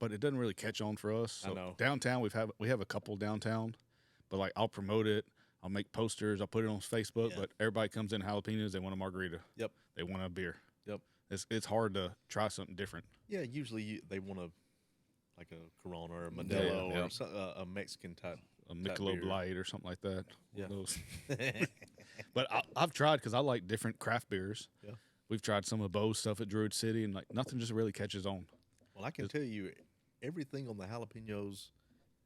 but it doesn't really catch on for us. I know. Downtown, we've have we have a couple downtown, but like I'll promote it. I'll make posters. I'll put it on Facebook. Yeah. But everybody comes in jalapenos. They want a margarita. Yep. They want a beer. Yep. It's it's hard to try something different. Yeah, usually you, they want a like a Corona or a Modelo or yeah. so- uh, a Mexican type. A Type Michelob beer. Light or something like that. One of Yeah. those. But I, I've tried because I like different craft beers. Yeah. We've tried some of Bo's stuff at Druid City, and like nothing just really catches on. well, I can tell you everything on the jalapenos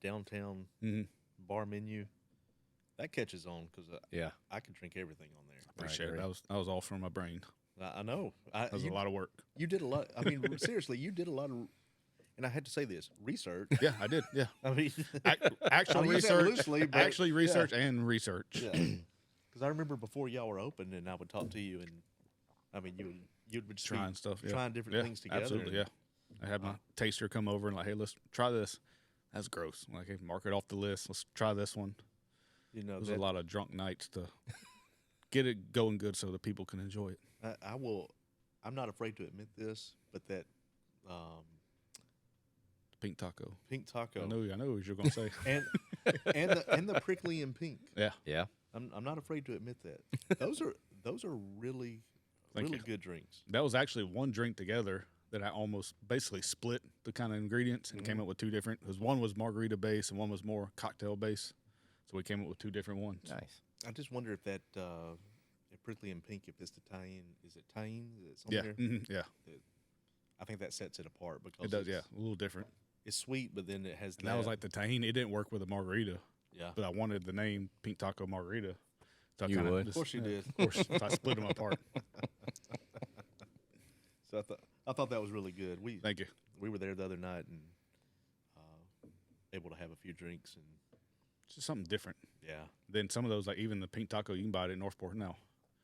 downtown Mhm. bar menu that catches on because Yeah. I, I can drink everything on there. Appreciate it. agree. That was that was all from my brain. I, I know. I, That was you, a lot of work. you did a lot. I mean, seriously, you did a lot of, and I had to say this research. Yeah, I did. Yeah. I mean, Ac- actual I'll use that research, loosely, but- actually yeah. research and research. because I remember before y'all were open, and I would talk to you, and I mean, you would- you would just be Trying stuff, yeah. trying different Yeah, things together. Absolutely, and- yeah. I had my taster come over and like, hey, let's try this. That's gross. Like, hey, mark it off the list. Let's try this one. You know, There's that- a lot of drunk nights to get it going good so the people can enjoy it. I, I will. I'm not afraid to admit this, but that um, Pink taco. pink taco I know. I know what you're gonna say. and and the, and the prickly and pink. yeah. Yeah. I'm, I'm not afraid to admit that. Those are those are really Thank really you. good drinks. That was actually one drink together that I almost basically split the kind of ingredients and Mm-hmm. came up with two different. Because one was margarita base and one was more cocktail base. So we came up with two different ones. Nice. I just wonder if that uh, if prickly and pink, if it's Italian, is it Italian? Is it Yeah. somewhere? mhm, yeah. I think that sets it apart because It does. Yeah. It's, A little different. it's sweet, but then it has And that was like the tahini. It didn't work with a margarita, yeah. but I wanted the name Pink Taco Margarita. So I You kinda would. Of Of course you yeah, did. Of course. so I split them apart. So I thought I thought that was really good. We Thank you. we were there the other night and uh, able to have a few drinks and It's just something different. yeah. Then some of those, like even the Pink Taco, you can buy it at Northport now.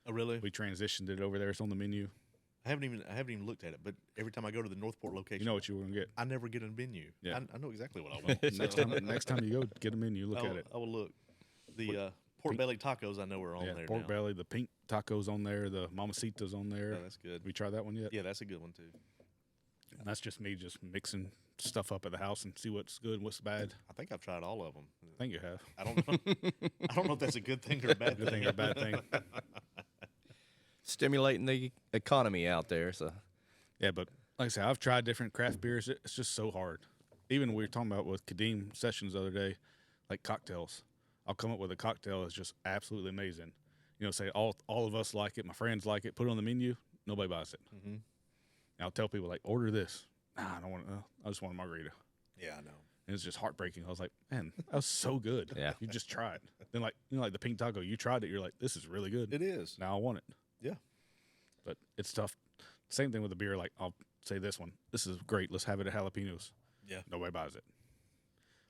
Oh really? We transitioned it over there. It's on the menu. I haven't even I haven't even looked at it, but every time I go to the Northport location, You know what you were going to get. I never get a menu. Yeah. I, I know exactly what I want. Next so time, next time you go, get a menu. Look I will, at it. I will look. The uh, pork belly tacos I know are on yeah, there. pork now. belly, the pink tacos on there, the mamacitas on there. Yeah, that's good. Have you tried that one yet? Yeah, that's a good one too. And that's just me just mixing stuff up at the house and see what's good, and what's bad. I think I've tried all of them. I think you have. I don't know. I don't know if that's a good thing or a bad Good thing thing. or bad thing. Stimulating the economy out there. So Yeah, but like I said, I've tried different craft beers. It- It's just so hard. Even we were talking about with Kadeem sessions the other day, like cocktails. I'll come up with a cocktail that's just absolutely amazing. You know, say all all of us like it, my friends like it. Put it on the menu, nobody buys it. Mhm. And I'll tell people like, order this. Nah, I don't want. Uh, I just want a margarita. Yeah, I know. And it's just heartbreaking. I was like, man, that was so good. Yeah. you just try it. Then like you know, like the pink taco, you tried it. You're like, this is really good. It is. Now I want it. Yeah. But it's tough. Same thing with the beer. Like I'll say this one. This is great. Let's have it at jalapenos. Yeah. Nobody buys it.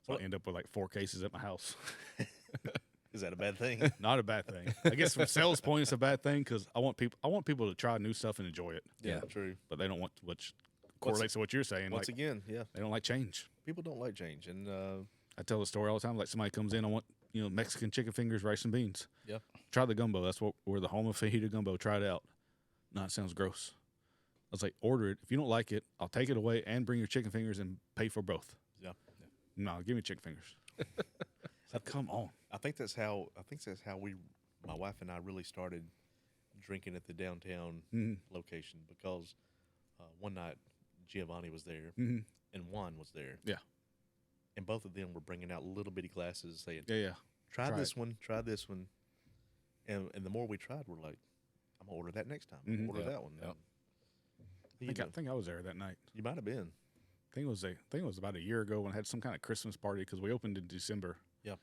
So Well- I end up with like four cases at my house. Is that a bad thing? Not a bad thing. I guess from sales point, it's a bad thing because I want people. I want people to try new stuff and enjoy it. Yeah. true. But they don't want which correlates to what you're saying. Once like again, yeah, they don't like change. people don't like change, and uh, I tell the story all the time. Like somebody comes in, I want you know Mexican chicken fingers, rice and beans. yeah, try the gumbo. That's what we're the home of fajita gumbo. Try it out. No, it sounds gross. I was like, order it. If you don't like it, I'll take it away and bring your chicken fingers and pay for both. yeah. No, give me chicken fingers. It's like, come on. I think that's how I think that's how we, my wife and I, really started drinking at the downtown Mm-hmm, location because uh, one night Giovanni was there Mhm. and Juan was there. Yeah. and both of them were bringing out little bitty glasses, saying, Yeah, yeah. "Try, try this one, try this one," and and the more we tried, we're like, "I'm gonna order that next time. I'm gonna Mhm. order Yep, that one." yep. I You, think, I, know, think I was there that night. you might have been. I think it was a, I think it was about a year ago when I had some kind of Christmas party because we opened in December. Yeah.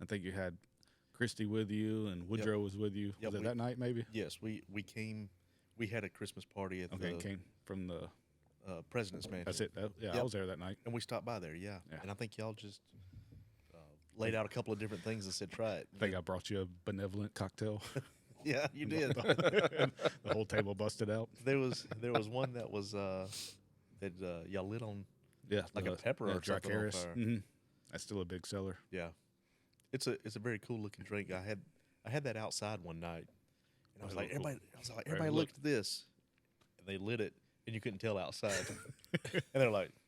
I think you had Christy with you and Woodrow was with you. Yep, was it we- that night maybe? Yes, we we came. We had a Christmas party at Okay, the came from the. uh, president's mansion. That's it. That, yeah, I Yep. was there that night. And we stopped by there, yeah. Yeah. And I think y'all just uh, laid out a couple of different things and said, "Try it." I think I brought you a benevolent cocktail. yeah, you did. the whole table busted out. there was there was one that was uh, that uh, y'all lit on. Yeah, Like a pepper or something on fire. hmm That's still a big seller. Yeah, it's a it's a very cool looking drink. I had I had that outside one night, and I was Oh, like, cool. everybody, I was like, Everybody everybody looked. looked at this, and they lit it, and you couldn't tell outside, and they're like,